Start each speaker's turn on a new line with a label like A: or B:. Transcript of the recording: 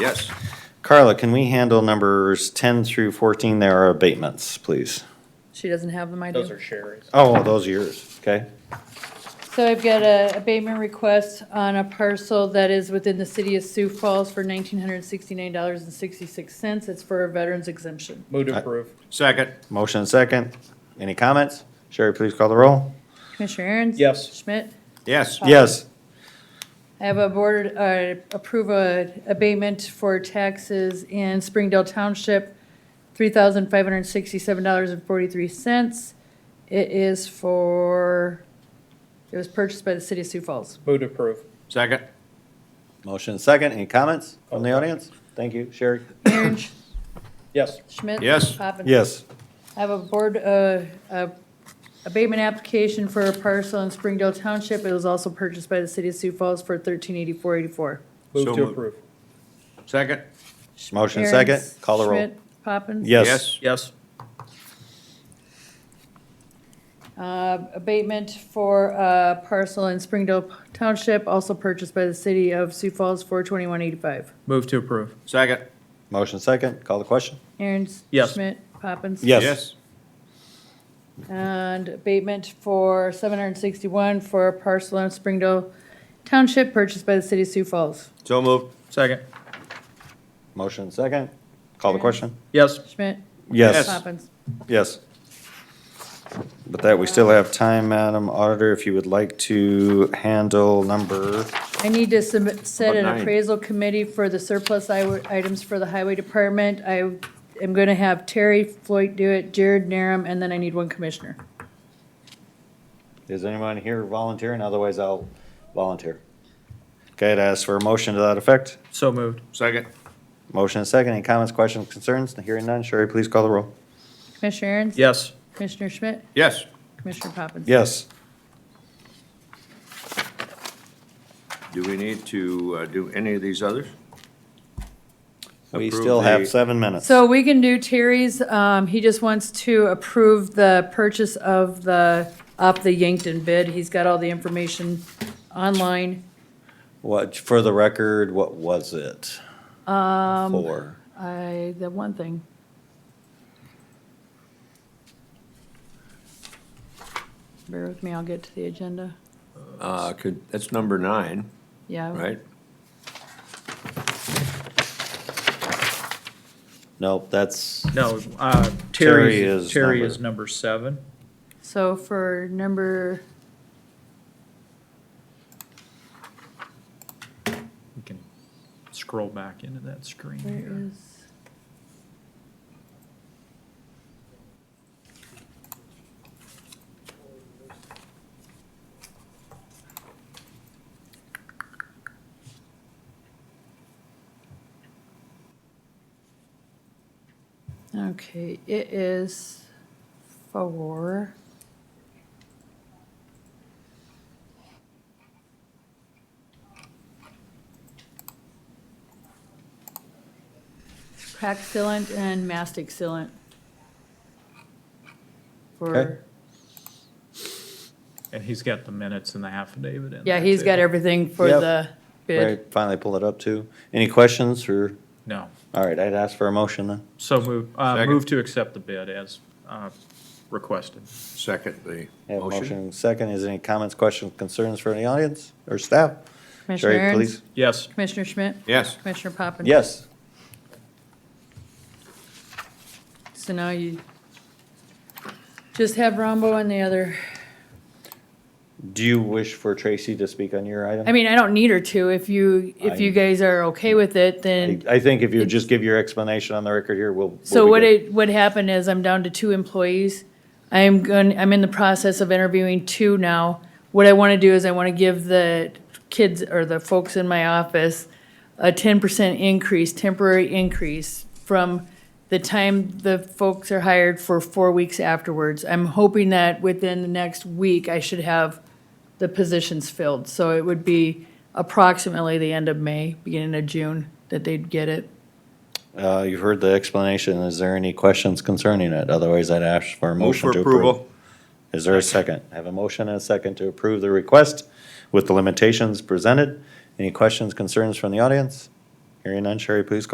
A: Yes.
B: Carla, can we handle numbers 10 through 14? There are abatements, please.
C: She doesn't have them, I do.
D: Those are Sherry's.
B: Oh, those are yours, okay?
C: So I've got a abatement request on a parcel that is within the city of Sioux Falls for nineteen hundred sixty-nine dollars and sixty-six cents. It's for a veterans exemption.
D: Move to approve.
A: Second.
B: Motion and second. Any comments? Sherry, please call the roll.
C: Commissioner Aaron's?
D: Yes.
C: Schmidt?
A: Yes.
B: Yes.
C: I have a board, uh, approve a abatement for taxes in Springdale Township, three thousand five hundred sixty-seven dollars and forty-three cents. It is for, it was purchased by the city of Sioux Falls.
D: Move to approve.
A: Second.
B: Motion and second. Any comments from the audience? Thank you, Sherry.
C: Aaron
D: Yes.
C: Schmidt?
A: Yes.
C: Poppins?
B: Yes.
C: I have a board, uh, uh, abatement application for a parcel in Springdale Township. It was also purchased by the city of Sioux Falls for thirteen eighty-four eighty-four.
A: So
D: Move to
A: moved.
D: approve.
A: Second.
B: Motion second. Call the roll.
C: Schmidt, Poppins?
B: Yes.
D: Yes.
C: Uh, abatement for a parcel in Springdale Township, also purchased by the city of Sioux Falls for twenty-one eighty-five.
D: Move to approve.
A: Second.
B: Motion second. Call the question.
C: Aaron's?
D: Yes.
C: Schmidt, Poppins?
B: Yes.
C: And abatement for seven hundred and sixty-one for a parcel in Springdale Township, purchased by the city of Sioux Falls.
A: So moved.
D: Second.
B: Motion and second. Call the question.
D: Yes.
C: Schmidt,
B: Yes,
C: Poppins?
B: yes. But that, we still have time, Madam Auditor, if you would like to handle number,
C: I need to submit, set an
A: About nine.
C: appraisal committee for the surplus i- items for the highway department. I am gonna have Terry Floyd do it, Jared Narum, and then I need one commissioner.
B: is anyone here volunteering? Otherwise, I'll volunteer. Okay, I'd ask for a motion to that effect.
D: So moved.
A: Second.
B: Motion and second. Any comments, questions, concerns? Hearing none. Sherry, please call the roll.
C: Commissioner Aaron's?
D: Yes.
C: Commissioner Schmidt?
A: Yes.
C: Commissioner Poppins?
B: Yes.
A: Do we need to uh, do any of these others?
B: We
A: Approve
B: still
A: the-
B: have seven minutes.
C: So we can do Terry's, um, he just wants to approve the purchase of the, of the Yankton bid. He's got all the information online.
B: What, for the record, what was it? Um. For,
C: I, the one thing. Bear with me, I'll get to the agenda.
A: Uh, could, that's number nine,
C: Yeah.
A: right?
B: nope, that's,
D: No, uh,
B: Terry
D: Terry,
B: is
D: Terry
B: number-
D: is number seven.
C: So for number,
D: We can scroll back into that screen
C: where
D: here.
C: is? Okay, it is for. Crack sealant and mastic sealant.
B: Okay.
C: For,
D: And he's got the minutes and the affidavit in.
C: yeah,
D: there,
C: he's
D: too.
C: got everything for
B: Yep.
C: the
B: I
C: bid.
B: finally pulled it up too. Any questions or,
D: No.
B: all right, I'd ask for a motion then.
D: So move, uh,
A: Second.
D: move to accept the bid as, uh, requested.
A: Second, the
B: I Have a
A: motion.
B: motion second. Is there any comments, questions, concerns for any audience or staff?
C: Commissioner
B: Sherry,
C: Aaron's?
B: please.
D: Yes.
C: Commissioner Schmidt?
A: Yes.
C: Commissioner Poppins?
B: Yes,
C: So now you just have Rombo and the other,
B: do you wish for Tracy to speak on your item?
C: I mean, I don't need her to. If you, if you
B: I-
C: guys are okay with it, then.
B: I I think if you would just give your explanation on the record here, we'll. we'll
C: So
B: be
C: what
B: good.
C: it, what happened is I'm down to two employees. I am going, I'm in the process of interviewing two now. What I want to do is I want to give the kids or the folks in my office a ten percent increase, temporary increase from the time the folks are hired for four weeks afterwards. I'm hoping that within the next week, I should have the positions filled. So it would be approximately the end of May, beginning of June, that they'd get it.
B: Uh, you've heard the explanation. Is there any questions concerning it? Otherwise, I'd ask for a
A: Move
B: motion
A: for
B: to approve.
A: approval.
B: Is there a second? I have a motion and a second to approve the request with the limitations presented. Any questions, concerns from the audience? Hearing none, Sherry, please call